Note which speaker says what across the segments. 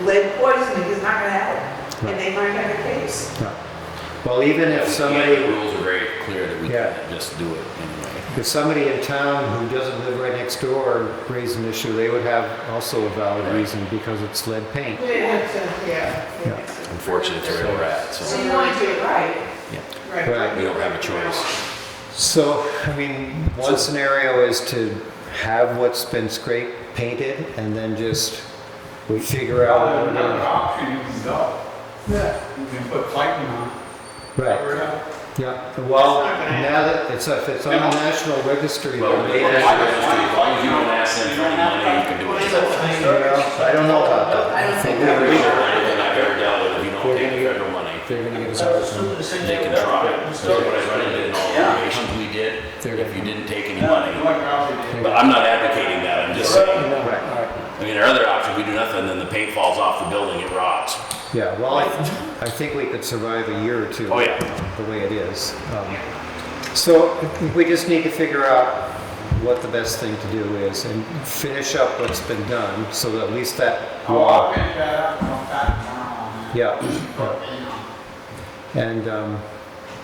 Speaker 1: lead poisoning is not gonna help, and they might have a case.
Speaker 2: Well, even if
Speaker 3: Yeah, the
Speaker 2: somebody,
Speaker 3: rules are very clear that we
Speaker 2: Yeah.
Speaker 3: can't just do it anyway.
Speaker 2: if somebody in town who doesn't live right next door raised an issue, they would have also a valid reason because it's lead paint.
Speaker 1: Yeah.
Speaker 3: Unfortunately, it's where we're at,
Speaker 1: So
Speaker 3: so
Speaker 1: you want to do it right.
Speaker 3: Yeah.
Speaker 1: Right.
Speaker 2: Right.
Speaker 3: we don't have a choice.
Speaker 2: So, I mean, one scenario is to have what's been scraped painted and then just we figure out. what
Speaker 4: Another
Speaker 2: we're-
Speaker 4: option, you can go. You can put piping on,
Speaker 2: Right,
Speaker 4: cover it up.
Speaker 2: yeah. Well,
Speaker 1: It's not gonna
Speaker 2: now that it's, if it's on the National Registry.
Speaker 3: Well,
Speaker 2: then-
Speaker 3: they
Speaker 2: You
Speaker 3: actually register, as long as you don't ask them for any money, you can do it.
Speaker 2: know, I don't know about that.
Speaker 5: I don't think
Speaker 3: Every
Speaker 5: that
Speaker 3: other anything I've ever dealt with, if you don't pay the federal money,
Speaker 6: They're gonna give us our,
Speaker 3: they can try it. So what I run into in all the operations we did, if you didn't take any money.
Speaker 4: What property?
Speaker 3: But I'm not advocating that, I'm just saying,
Speaker 6: no, alright,
Speaker 3: I mean, our other option, we do nothing, then the paint falls off the building, it rots.
Speaker 2: Yeah, well, I, I think we could survive a year or two.
Speaker 3: Oh, yeah.
Speaker 2: The way it is. Um, So we just need to figure out what the best thing to do is and finish up what's been done so that at least that
Speaker 4: I'll
Speaker 2: wall.
Speaker 4: pick that up and I'll pack it on.
Speaker 2: Yeah. And, um,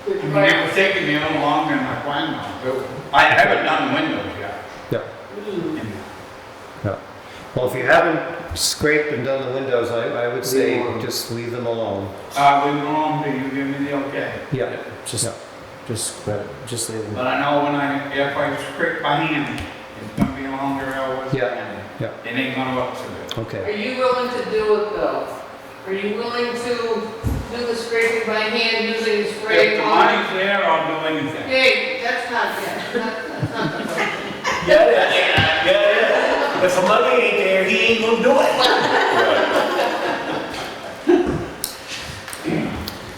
Speaker 4: It would have taken me a little longer than I planned on doing. I haven't done windows yet.
Speaker 2: yeah, yeah. Well, if you haven't scraped and done the windows, I, I would say just leave them alone.
Speaker 4: Uh, we were on, do you give me the okay?
Speaker 2: Yeah,
Speaker 6: just,
Speaker 2: Yeah.
Speaker 6: just, grab it, just leave them.
Speaker 4: But I know when I, if I scrape by hand, it's gonna be longer hours.
Speaker 2: Yeah,
Speaker 4: and
Speaker 2: yeah.
Speaker 4: It ain't gonna look so good.
Speaker 5: Are
Speaker 2: okay.
Speaker 5: you willing to do it though? Are you willing to do the scraping by hand using
Speaker 4: If
Speaker 5: spray
Speaker 4: the
Speaker 5: on?
Speaker 4: money's there, I'll do anything.
Speaker 5: Hey, that's not that, that's not the motion.
Speaker 7: Yeah, yeah, yeah. If the money ain't there, he ain't gonna do it.
Speaker 3: I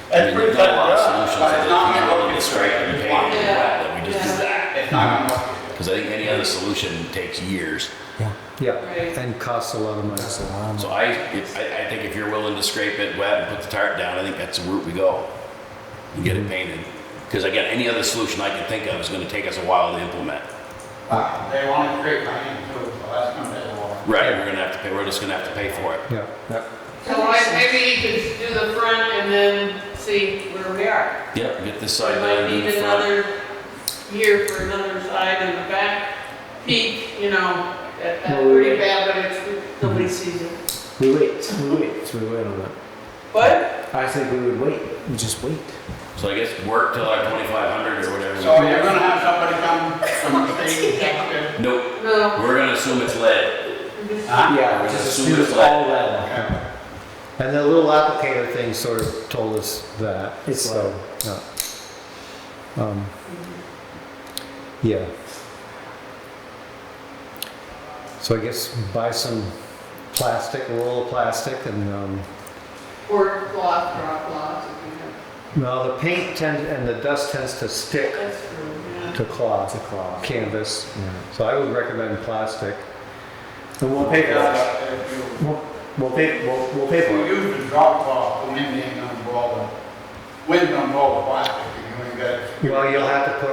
Speaker 7: That's
Speaker 3: mean,
Speaker 7: pretty
Speaker 3: there's
Speaker 7: cut
Speaker 3: not a lot of
Speaker 7: up.
Speaker 3: solutions that uh, if you willing to scrape and pay and do that, then we just do that.
Speaker 4: It's not gonna look
Speaker 3: Because I think any other solution takes years.
Speaker 2: Yeah,
Speaker 5: Right.
Speaker 2: and costs a lot of money.
Speaker 6: Just allow 'em.
Speaker 3: So I, if, I, I think if you're willing to scrape it wet and put the tarp down, I think that's the route we go. And get it painted. Because again, any other solution I could think of is gonna take us a while to implement.
Speaker 4: Uh, They want to create my hand too, so that's gonna be a lot.
Speaker 3: Right. We're gonna have to pay, we're just gonna have to pay for it.
Speaker 2: Yeah, yeah.
Speaker 5: So I, maybe you could do the front and then see where we are.
Speaker 3: Yep, get this
Speaker 5: We
Speaker 3: side
Speaker 5: might
Speaker 3: done, do
Speaker 5: need
Speaker 3: the front.
Speaker 5: another year for another side and the back peak, you know, that, that's pretty bad, but it's, nobody sees it.
Speaker 6: We wait, we wait, so we wait on that.
Speaker 5: But,
Speaker 6: I think we would wait, we just wait.
Speaker 3: So I guess work till like twenty-five hundred or whatever.
Speaker 4: So you're gonna have somebody come from the state detective?
Speaker 3: Nope,
Speaker 5: no,
Speaker 3: we're gonna assume it's lead.
Speaker 4: Huh?
Speaker 6: Yeah,
Speaker 3: we're
Speaker 6: just
Speaker 3: just
Speaker 6: assume it's
Speaker 3: assuming it's
Speaker 6: all lead.
Speaker 4: Okay.
Speaker 2: And the little applicator thing sort of told us that.
Speaker 6: It's
Speaker 2: so, yeah. Um, yeah. So I guess buy some plastic, a roll of plastic, and um,
Speaker 5: or cloth, drop cloth, if you have,
Speaker 2: well, the paint tends and the dust tends to stick
Speaker 5: that's true, yeah.
Speaker 2: to
Speaker 6: It's a
Speaker 2: cloth,
Speaker 6: cloth.
Speaker 2: canvas.
Speaker 6: Yeah.
Speaker 2: So I would recommend plastic.
Speaker 6: And we'll
Speaker 4: Pick
Speaker 6: pay
Speaker 4: it
Speaker 6: for that.
Speaker 4: up if you-
Speaker 6: We'll, we'll pay, we'll, we'll pay
Speaker 4: If
Speaker 6: for
Speaker 4: you
Speaker 6: it.
Speaker 4: use the drop cloth, the wind ain't gonna blow the, wind gonna blow the plastic, you ain't got.
Speaker 2: Well, you'll have to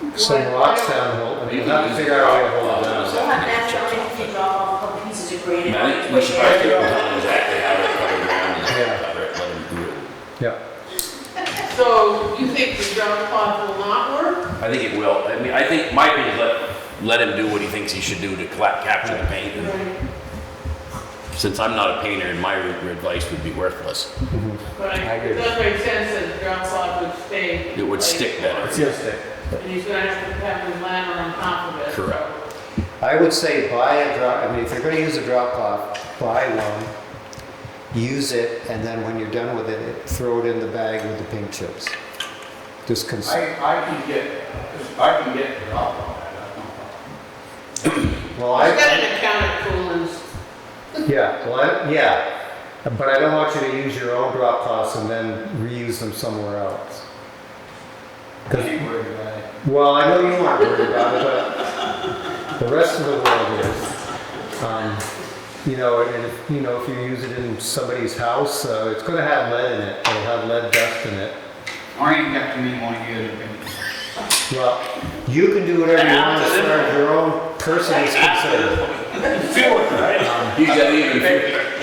Speaker 2: put some
Speaker 5: Well,
Speaker 2: rocks
Speaker 5: I don't-
Speaker 2: down. hold- You'll have to figure out how to hold it down.
Speaker 3: Well, that's
Speaker 7: why I think drop off a couple pieces of
Speaker 3: I
Speaker 7: granite.
Speaker 3: mean, I think we should probably figure out exactly how to cover ground and cover it, let them do it.
Speaker 2: Yeah.
Speaker 5: So you think the drop cloth will not work?
Speaker 3: I think it will. I mean, I think my opinion is let, let him do what he thinks he should do to cla- capture the paint. And Since I'm not a painter, and my r- advice would be worthless.
Speaker 5: But
Speaker 6: I
Speaker 5: I,
Speaker 6: agree.
Speaker 5: it does make sense that the drop cloth would stay.
Speaker 3: It would stick better.
Speaker 6: It's your stick.
Speaker 5: And he's gonna have to have the ladder on top of it. so-
Speaker 3: Correct.
Speaker 2: I would say buy a drop, I mean, if you're gonna use a drop cloth, buy one, use it, and then when you're done with it, throw it in the bag with the paint chips. Just cons-
Speaker 4: I, I can get, I can get the drop cloth, that's no problem.
Speaker 2: well,
Speaker 5: I've
Speaker 2: I,
Speaker 5: got an accountant coolers.
Speaker 2: yeah, well, I, yeah. But I don't want you to use your own drop cloths and then reuse them somewhere else. 'Cause-
Speaker 4: Ain't worried about it.
Speaker 2: Well, I know you aren't worried about it, but the rest of the world is. Um, you know, and if, you know, if you use it in somebody's house, uh, it's gonna have lead in it, it'll have lead dust in it.
Speaker 4: I ain't got to me one year to finish.
Speaker 2: Well, you can do whatever you want as far as your own person is concerned.
Speaker 7: Feel it, right?
Speaker 3: He's got even,